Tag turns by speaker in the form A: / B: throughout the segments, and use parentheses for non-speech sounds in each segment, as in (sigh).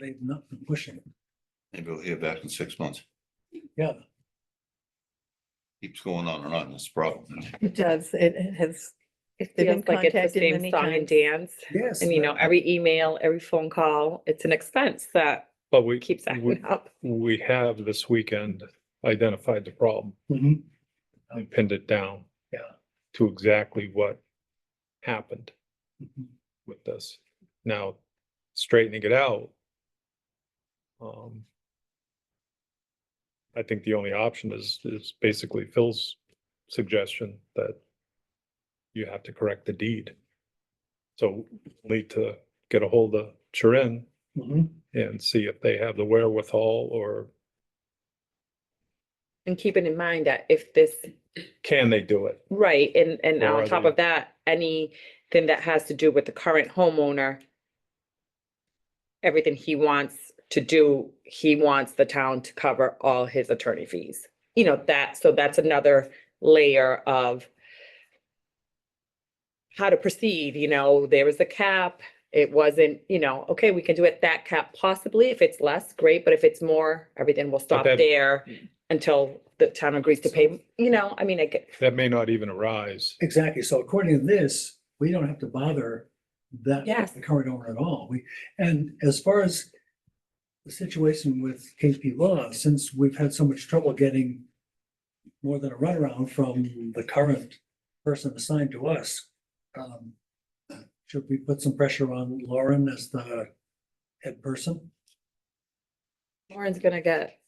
A: They've not been pushing it.
B: Maybe we'll hear back in six months.
A: Yeah.
B: Keeps going on and on, that's the problem.
C: It does, it it has,
D: It
C: They've been
D: feels like it's the
C: contacted
D: same
C: many
D: song and
C: times.
D: dance.
A: Yes.
D: And you know, every email, every phone call, it's an expense that
E: But we,
D: keeps
E: we,
D: acting up.
E: we have this weekend identified the problem
A: Mhm.
E: and pinned it down.
A: Yeah.
E: To exactly what happened
A: Mhm.
E: with this. Now, straightening it out. Um. I think the only option is, is basically Phil's suggestion that. You have to correct the deed. So need to get a hold of Sharon
A: Mhm.
E: and see if they have the wherewithal or
D: And keeping in mind that if this,
E: can they do it?
D: right, and, and
E: Or
D: on
E: are
D: top
E: they-
D: of that, anything that has to do with the current homeowner, everything he wants to do, he wants the town to cover all his attorney fees. You know, that, so that's another layer of how to proceed, you know, there was a cap. It wasn't, you know, okay, we can do it that cap possibly. If it's less, great, but if it's more, everything will stop
E: that-
D: there until the town agrees to pay, you know, I mean, I get,
E: That may not even arise.
A: Exactly. So according to this, we don't have to bother that.
D: Yes.
A: The current owner at all. We, and as far as the situation with KP Law, since we've had so much trouble getting more than a runaround from the current person assigned to us, um, should we put some pressure on Lauren as the head person?
D: Lauren's gonna get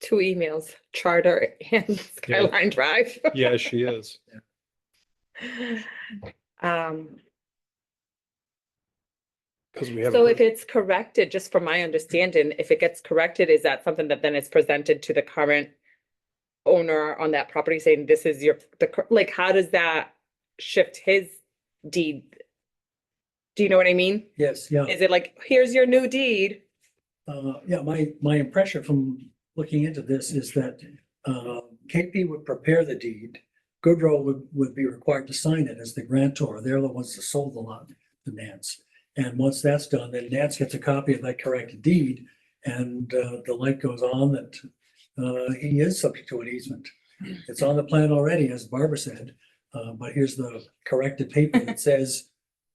D: two emails, Charter
E: (laughs)
D: and Skyline Drive.
E: Yeah, she is.
D: Um,
E: Because we have.
D: so if it's corrected, just from my understanding, if it gets corrected, is that something that then is presented to the current owner on that property saying this is your, the, cor- like, how does that shift his deed? Do you know what I mean?
A: Yes. Yeah.
E: Uh.
D: Is it like, here's your new deed?
A: Uh, yeah, my, my impression from looking into this is that, uh, KP would prepare the deed. Goodrow would, would be required to sign it as the grantor. They're the ones that sold the lot to Nance. And once that's done, then Nance gets a copy of that corrected deed and, uh, the light goes on that, uh, he is subject to an easement. It's on the plan already, as Barbara said, uh, but here's the corrected paper that says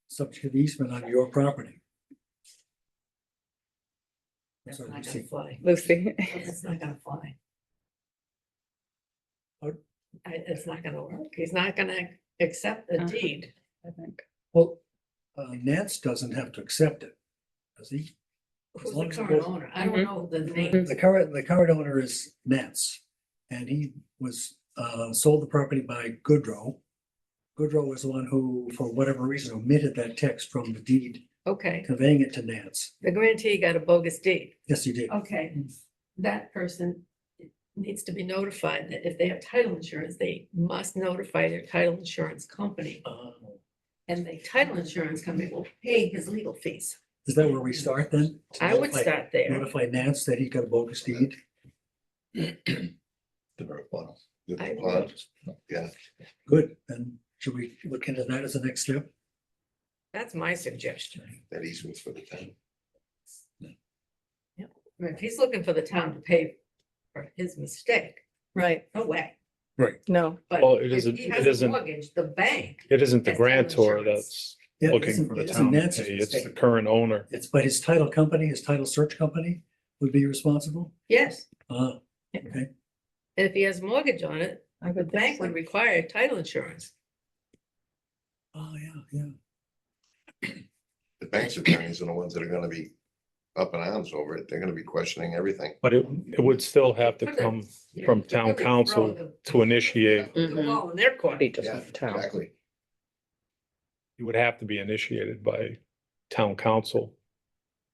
A: subject to the easement on your property.
F: That's
A: So
F: not
A: you
F: gonna
A: see.
F: fly.
D: Lucy,
F: That's not gonna fly. I,
A: Pardon?
F: it's not gonna work. He's not gonna accept the deed.
A: Well, uh, Nance doesn't have to accept it, does he? As
F: Who's the
A: long as it
F: current
A: goes-
F: owner? I don't
D: Mhm.
F: know the name.
A: The current, the current owner is Nance, and he was, uh, sold the property by Goodrow. Goodrow was the one who, for whatever reason, omitted that text from the deed
F: Okay,
A: conveying it to Nance.
F: the grantee got a bogus deed.
A: Yes, he did.
F: Okay, that person needs to be notified that if they have title insurance, they must notify their title insurance company.
A: Uh,
F: And the title insurance company will pay his legal fees.
A: Is that where we start then? To
F: I would
A: notify-
F: start there.
A: Notify Nance that he got a bogus deed?
B: The very bottom. The
F: I
B: bottom. Yeah,
A: Good, then should we look into that as the next step?
F: That's my suggestion.
B: that easement for the town.
F: I mean, If he's looking for the town to pay for his mistake,
C: right,
F: no way.
C: no,
F: But
E: Well, it
F: if
E: isn't-
F: he
E: it
F: has a
E: isn't-
F: Mortgage, the bank,
E: It isn't the
F: That's title
E: grantor
F: insurance.
E: that's
A: Yeah, it
E: looking
A: isn't-
E: for the
A: it isn't
E: town. to
A: Nance's
E: pay, It's the
A: mistake.
E: current owner.
A: It's, but his title company, his title search company would be responsible?
F: yes,
A: Uh,
F: and if he has a mortgage on it,
C: I
F: the
C: would
F: bank
C: think
F: would
C: so.
F: require title insurance.
A: oh, yeah, yeah.
B: The bank's attorneys are the ones that are gonna be up in arms over it. They're gonna be questioning everything.
E: But it, it would still have to come from town council to initiate.
F: The
D: Mm-hmm.
F: wall in their court.
D: Be just
B: Yeah,
D: left town.
B: Exactly.
E: It would have to be initiated by town council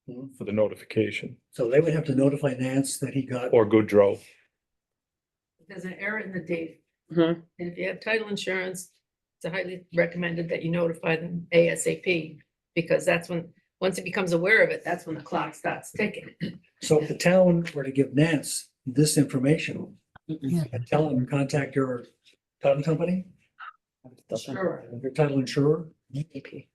A: Mhm.
E: for the notification
A: So they would have to notify Nance that he got,
E: or Goodrow.
F: There's an error in the deed.
D: Mhm.
F: And if you have title insurance, it's highly recommended that you notify them ASAP. Because that's when, once he becomes aware of it, that's when the clock starts ticking.
A: so if the town were to give Nance this information and tell him, contact your title company,
F: Sure.
A: your title insurer,
D: EP.